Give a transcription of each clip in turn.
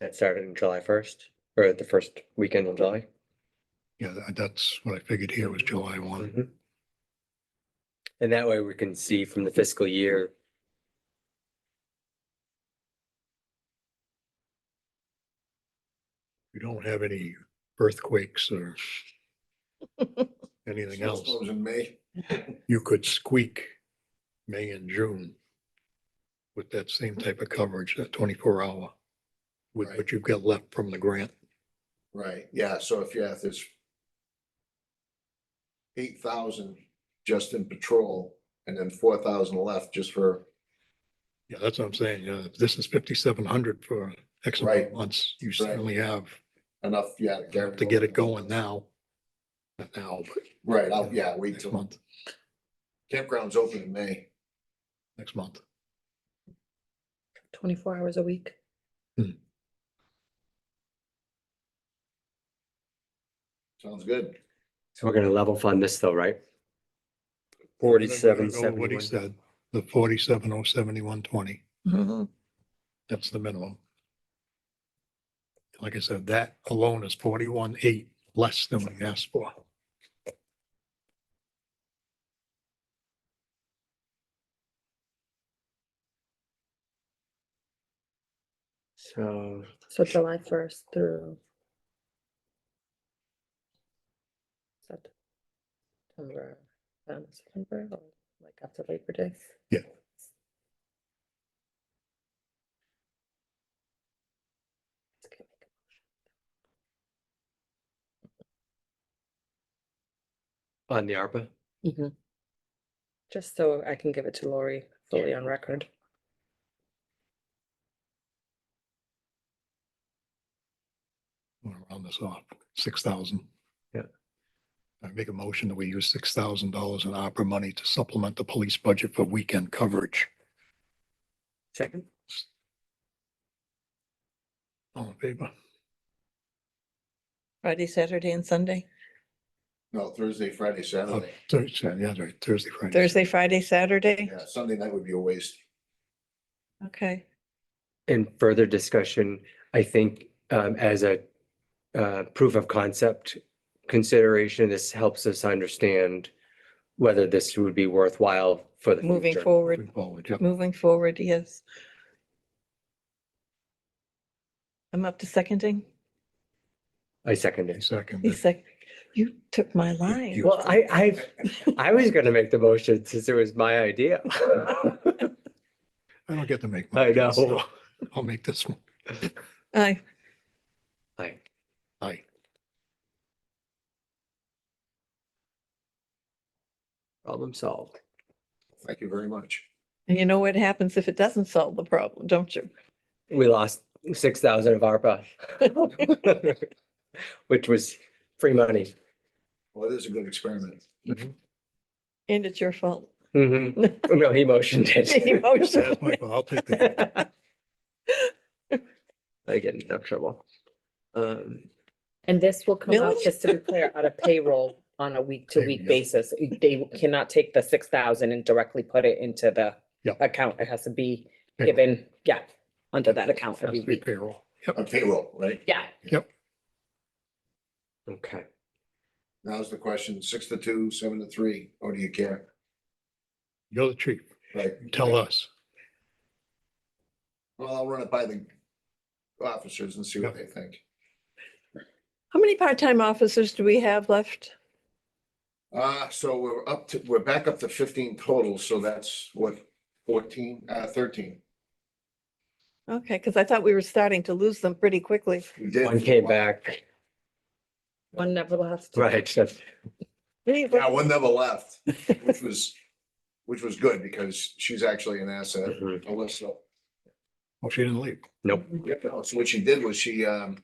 That started in July first, or the first weekend in July. Yeah, tha- that's what I figured here was July one. Mhm. And that way we can see from the fiscal year. We don't have any earthquakes or anything else. Snowstorms in May. You could squeak May and June with that same type of coverage, that twenty-four hour, with Right. what you've got left from the grant. Right, yeah, so if you have this eight thousand just in patrol and then four thousand left just for, Yeah, that's what I'm saying. Yeah, if this is fifty-seven hundred for X amount of Right. months. You certainly have enough, yeah. to get it going now. Not now, but Right, I'll, yeah, wait next till month, campground's open in May. next month. twenty-four hours a week. Sounds good. So we're gonna level fund this though, right? Forty-seven, I'm gonna go with What he seventy-one. said, the forty-seven oh seventy-one twenty, Mhm. that's the minimum. Like I said, that alone is forty-one eight, less than we asked for. So So July first through. Sept- September, um, September, or like after Labor Day. Yeah. on the ARPA, Mhm. Just so I can give it to Lori fully on record. I'm gonna round this off, six thousand. Yeah. I make a motion that we use six thousand dollars in opera money to supplement the police budget for weekend coverage. second, All in favor? Friday, Saturday and Sunday. No, Thursday, Friday, Oh, Saturday. Thursday, yeah, right, Thursday, Friday. Thursday, Friday, Saturday. Yeah, Sunday night would be a waste. Okay. and further discussion, I think, um, as a uh, proof of concept consideration, this helps us understand whether this would be worthwhile for the Moving future. forward, Forward, yep. moving forward, yes. I'm up to seconding. I second Any it. Second. He's like, you took my line. you- Well, I, I, I was gonna make the motion since it was my idea. I don't get to make. I know. motions, so I'll make this one. Aye. Aye. Aye. Problem solved. Thank you very much. And you know what happens if it doesn't solve the problem, don't you? We lost six thousand of ARPA. Which was free money. Well, it is a good experiment. And it's your fault. Mhm. No, he motioned it. Emotion. That's my fault. I'll take that. I get in enough trouble. Um, And this will come out, Millage? just to be clear, out of payroll on a week-to-week Payroll. basis. They cannot take the six thousand and directly put it into the Yeah. account. It has to be Payroll. given, yeah, under that account Has every to be week. payroll. Yep. On payroll, right? Yeah, okay, Now's the question, six to two, seven to three, or do you care? You're the chief. Right, Tell uh, us. well, I'll run it by the officers and see what they think. How many part-time officers do we have left? Uh, so we're up to, we're back up to fifteen total, so that's what, fourteen, uh, thirteen. Okay, because I thought we were starting to lose them pretty quickly. We did. one came back, one never left. right, that's- Yeah, one never left, which was, which was good because she's actually an asset, mhm. Alyssa. Well, Oh, she didn't leave. nope, So what she did was she, um,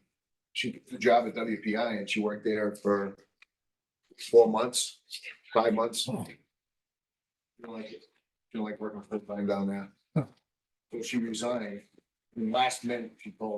she did the job at WPI and she worked there for four months, five months. Oh, She don't like it. She don't like working full time down there. Huh. So she resigned. and Last minute, she told